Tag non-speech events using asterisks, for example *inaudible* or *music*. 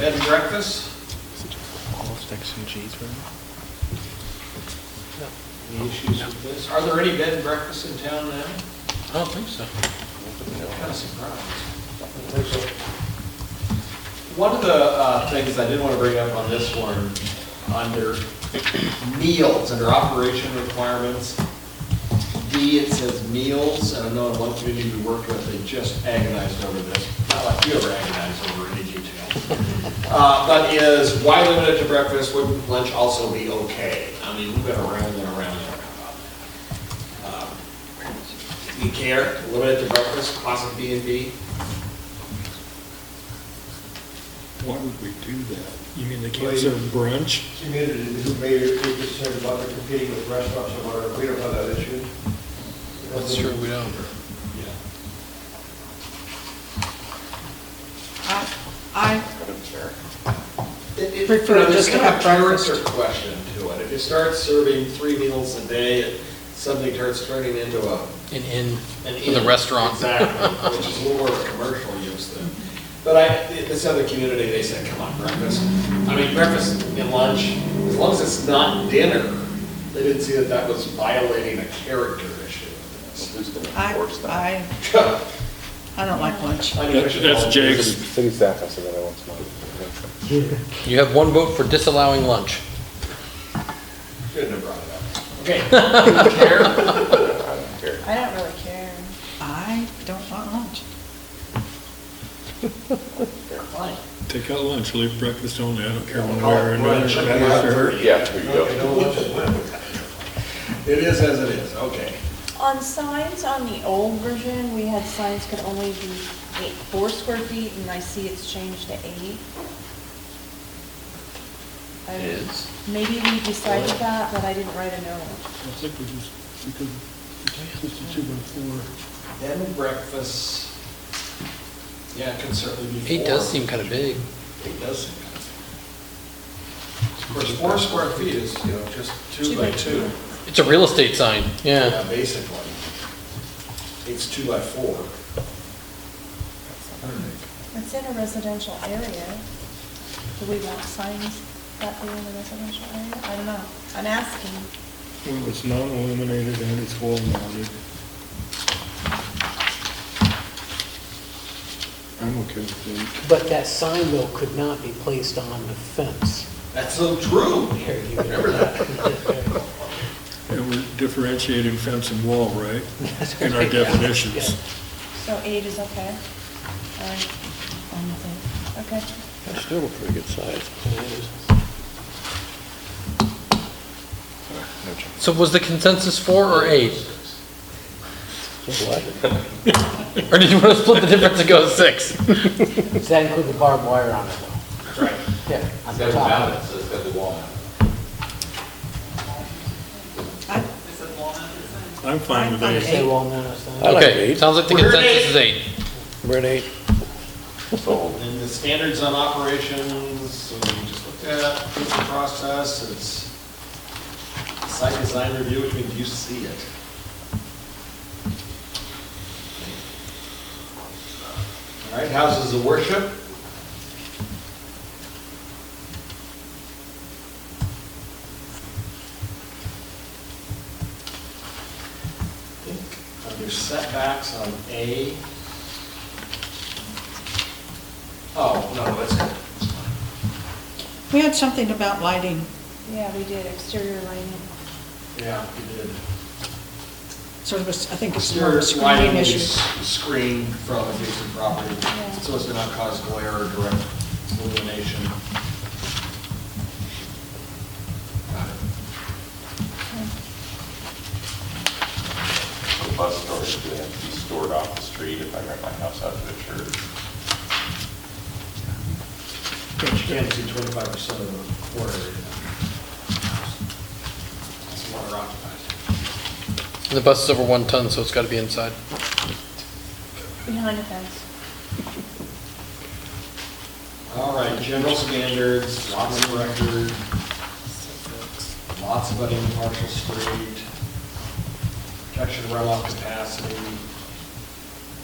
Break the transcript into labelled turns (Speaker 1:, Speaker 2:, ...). Speaker 1: breakfast?
Speaker 2: Any issues with this?
Speaker 1: Are there any bed and breakfasts in town now?
Speaker 2: I don't think so.
Speaker 1: Kind of surprised.
Speaker 2: I
Speaker 1: One of the uh, things I did want to bring up on this one, under meals, under operation requirements, D, it says meals, and I know in one community we worked with, they just agonized over this. Not like you ever agonized over any detail. Uh, But is, why limit it to breakfast, wouldn't lunch also be okay? I mean, we've been around and around and around on that. Um, You care, limit it to breakfast, classic B and B?
Speaker 3: Why would we do that? You mean they
Speaker 4: Well,
Speaker 3: can't
Speaker 4: you-
Speaker 3: serve brunch?
Speaker 4: community who may be concerned about the competing with restaurants or whatever, we don't have that issue.
Speaker 2: That's true, we don't.
Speaker 5: I- I,
Speaker 1: It- it-
Speaker 5: Prefer
Speaker 1: you know, there's
Speaker 5: just to
Speaker 1: kind of
Speaker 5: have
Speaker 1: a
Speaker 5: breakfast.
Speaker 1: character question to it. If you start serving three meals a day, it suddenly starts turning into a.
Speaker 2: An inn,
Speaker 1: an
Speaker 2: with a
Speaker 1: inn.
Speaker 2: restaurant.
Speaker 1: Exactly, which is more of a commercial use than, but I, this other community, they said, come on, breakfast. I mean, breakfast and lunch, as long as it's not dinner, they didn't see that that was violating a character issue. *laughs*
Speaker 5: I, I, I don't like lunch.
Speaker 1: I mean, we
Speaker 3: That's
Speaker 1: should
Speaker 3: that's
Speaker 1: all-
Speaker 3: Jake's.
Speaker 6: City staff, I said that I want to.
Speaker 2: You have one vote for disallowing lunch.
Speaker 1: Shouldn't have brought it up. Okay. Karen?
Speaker 7: I don't really care.
Speaker 5: I don't want lunch.
Speaker 1: Fine.
Speaker 3: Take out lunch, leave breakfast only, I don't care one
Speaker 1: Call
Speaker 3: way or
Speaker 1: it
Speaker 3: another.
Speaker 1: brunch.
Speaker 3: Sure.
Speaker 6: Yeah, there you
Speaker 4: Okay,
Speaker 6: go.
Speaker 4: no lunch is allowed.
Speaker 1: It is as it is, okay.
Speaker 7: On signs, on the old version, we had signs could only be eight, four square feet, and I see it's changed to eight. I-
Speaker 2: Is.
Speaker 7: Maybe we decided that, but I didn't write a note.
Speaker 3: I think we just, we could, this is two by four.
Speaker 1: Bed and breakfast, yeah, it can certainly be four.
Speaker 2: Eight does seem kind of big.
Speaker 1: It does seem kind of. Of course, four square feet is, you know, just two by two,
Speaker 2: It's a real estate sign, yeah.
Speaker 1: yeah, basically. It's two by four.
Speaker 7: It's in a residential area. Do we want signs that big in a residential area? I don't know. I'm asking.
Speaker 3: Well, it's not illuminated and it's wall mounted. I'm okay with
Speaker 8: But that sign, though, could not be placed on the fence.
Speaker 1: That's so true.
Speaker 8: Here, you-
Speaker 1: Remember that?
Speaker 3: that. And we're differentiating fence and wall, *laughs* right? In our definitions.
Speaker 7: So eight is okay? All right. Okay.
Speaker 8: That's still a pretty good size.
Speaker 2: So was the consensus four or eight? Or did you want to split the difference and go six?
Speaker 8: Does that include the barbed wire on it, though?
Speaker 1: Right.
Speaker 8: Yeah, on the
Speaker 9: It's got to
Speaker 8: top.
Speaker 9: so it's got to be walnut.
Speaker 5: I,
Speaker 3: I'm fine with
Speaker 5: I'm
Speaker 3: that.
Speaker 5: fine.
Speaker 8: Say wall mounted sign.
Speaker 2: Okay, sounds like the
Speaker 1: We're at
Speaker 2: consensus is eight.
Speaker 8: We're at eight.
Speaker 6: So,
Speaker 1: And the standards on operations, and we just looked at, proof of process, it's site design review, which means you see it. All right, houses of worship. Under setbacks on A. Oh, no, that's good. It's fine.
Speaker 5: we had something about lighting,
Speaker 7: Yeah, we did exterior lighting.
Speaker 1: Yeah, you did.
Speaker 5: sort of, a s- I think it's more of
Speaker 1: Exterior
Speaker 5: a screening
Speaker 1: lighting
Speaker 5: issue.
Speaker 1: is screened from adjacent property, so as to not cause glare or direct illumination. Got it.
Speaker 9: The bus storage, they have to be stored off the street if I rent my house out to the church.
Speaker 1: But you can't see twenty-five percent of the quarter area. That's water occupied.
Speaker 2: And The bus is over one ton, so it's got to be inside.
Speaker 7: Behind the fence.
Speaker 1: All right, general standards, lots of record, lots of impartial street, protection runoff capacity.